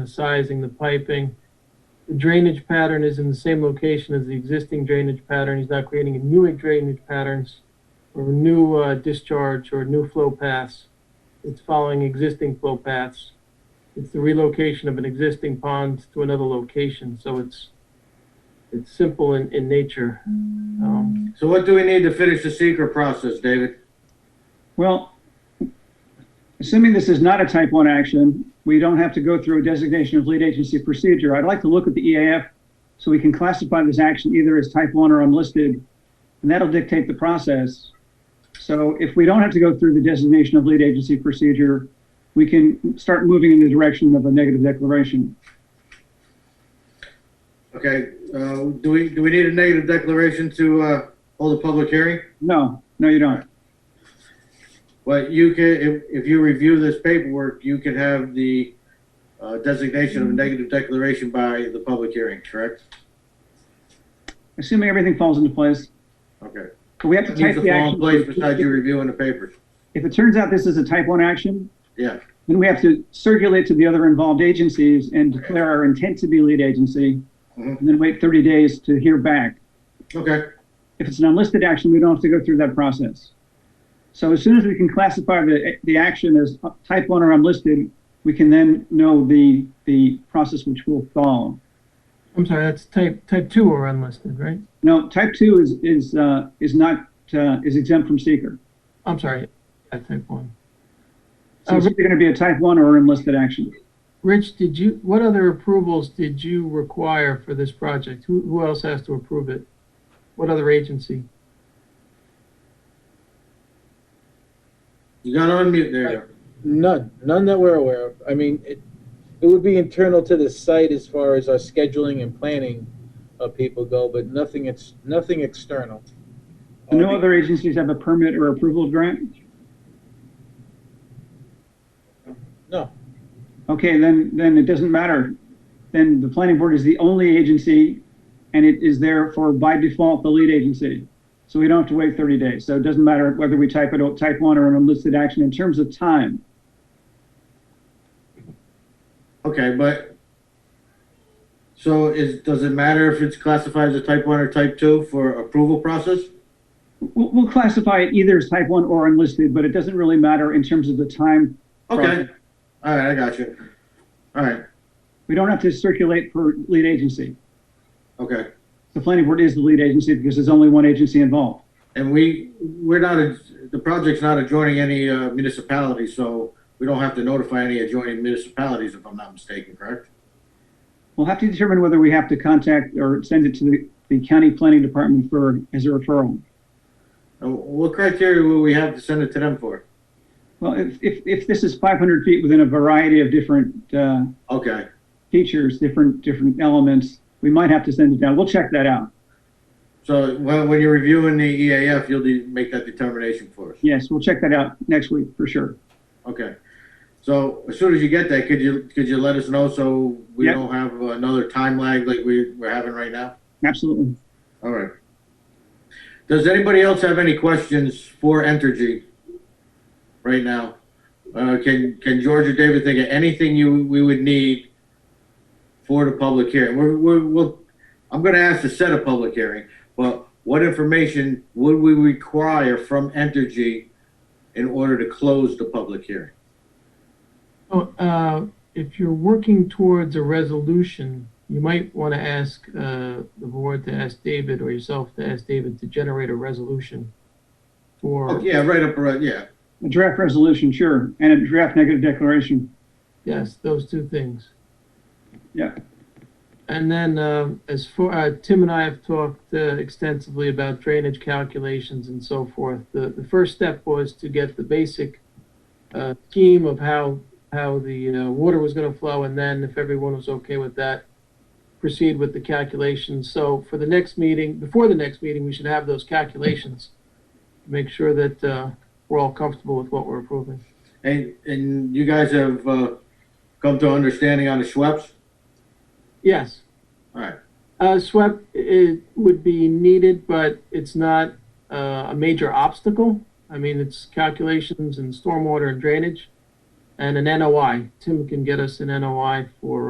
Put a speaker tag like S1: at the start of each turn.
S1: the sizing, the piping. The drainage pattern is in the same location as the existing drainage pattern. He's not creating new drainage patterns or new uh, discharge or new flow paths. It's following existing flow paths. It's the relocation of an existing pond to another location, so it's, it's simple in, in nature. Um,
S2: So what do we need to finish the secret process, David?
S3: Well, assuming this is not a type one action, we don't have to go through a designation of lead agency procedure. I'd like to look at the EAF so we can classify this action either as type one or unlisted, and that'll dictate the process. So if we don't have to go through the designation of lead agency procedure, we can start moving in the direction of a negative declaration.
S2: Okay, uh, do we, do we need a negative declaration to, uh, hold a public hearing?
S3: No, no, you don't.
S2: Well, you can, if, if you review this paperwork, you can have the, uh, designation of a negative declaration by the public hearing, correct?
S3: Assuming everything falls into place,
S2: Okay.
S3: but we have to
S2: Needs
S3: type
S2: to
S3: the
S2: fall in
S3: action.
S2: place besides you reviewing the papers.
S3: If it turns out this is a type one action,
S2: Yeah,
S3: Then we have to circulate to the other involved agencies and declare our intent to be lead agency,
S2: Mhm.
S3: and then wait 30 days to hear back.
S2: okay,
S3: If it's an unlisted action, we don't have to go through that process. So as soon as we can classify the, the action as type 1 or unlisted, we can then know the, the process which will follow.
S1: I'm sorry, that's type, type two or unlisted, right?
S3: Now, type 2 is, is, uh, is not, uh, is exempt from seeker.
S1: I'm sorry, I type one.
S3: So it's either going to be a type 1 or unlisted action.
S1: Rich, did you, what other approvals did you require for this project? Who, who else has to approve it? What other agency?
S2: you gotta unmute there.
S4: None, none that we're aware of. I mean, it, it would be internal to the site as far as our scheduling and planning of people go, but nothing, it's, nothing external.
S3: No other agencies have a permit or approval grant?
S4: No.
S3: Okay, then, then it doesn't matter. Then the planning board is the only agency, and it is therefore by default the lead agency. So we don't have to wait 30 days. So it doesn't matter whether we type it, type one or an unlisted action in terms of time.
S2: Okay, but, so is, does it matter if it's classified as a type one or type two for approval process?
S3: We'll, we'll classify it either as type one or unlisted, but it doesn't really matter in terms of the time.
S2: Okay,
S3: Right.
S2: all right, I got you. All right,
S3: We don't have to circulate for lead agency.
S2: okay.
S3: The planning board is the lead agency because there's only one agency involved.
S2: And we, we're not, the project's not adjoining any uh, municipality, so we don't have to notify any adjoining municipalities, if I'm not mistaken, correct?
S3: We'll have to determine whether we have to contact or send it to the, the county planning department for, as a referral.
S2: And Uh, What criteria will we have to send it to them for?
S3: Well, if, if, if this is 500 feet within a variety of different uh,
S2: Okay,
S3: features, different, different elements, we might have to send it down. We'll check that out.
S2: so when, when you're reviewing the EAF, you'll de- make that determination for us,
S3: Yes, we'll check that out next week for sure.
S2: okay? So as soon as you get that, could you, could you let us know so we
S3: Yep.
S2: don't have another time lag like we, we're having right now?
S3: Absolutely.
S2: All right. Does anybody else have any questions for Entergy right now? Uh, can, can George or David think of anything you, we would need for the public hearing? We're, we're, we'll, I'm gonna ask to set a public hearing, but what information would we require from Entergy in order to close the public hearing?
S1: Oh, uh, if you're working towards a resolution, you might want to ask, uh, the board to ask David or yourself to ask David to generate a resolution
S2: Oh,
S1: for,
S2: yeah, right up, right, yeah,
S3: A draft resolution, sure, and a draft negative declaration.
S1: yes, those two things.
S3: Yeah.
S1: And then, um, as for, uh, Tim and I have talked uh, extensively about drainage calculations and so forth. The, the first step was to get the basic, uh, scheme of how, how the, uh, water was gonna flow, and then if everyone was okay with that, proceed with the calculations. So for the next meeting, before the next meeting, we should have those calculations. Make sure that, uh, we're all comfortable with what we're approving.
S2: and, and you guys have, uh, come to understanding on the Schweppes?
S1: Yes.
S2: All right,
S1: Uh, SWEP it would be needed, but it's not uh, a major obstacle. I mean, it's calculations and stormwater and drainage, and an NOI. Tim can get us an NOI for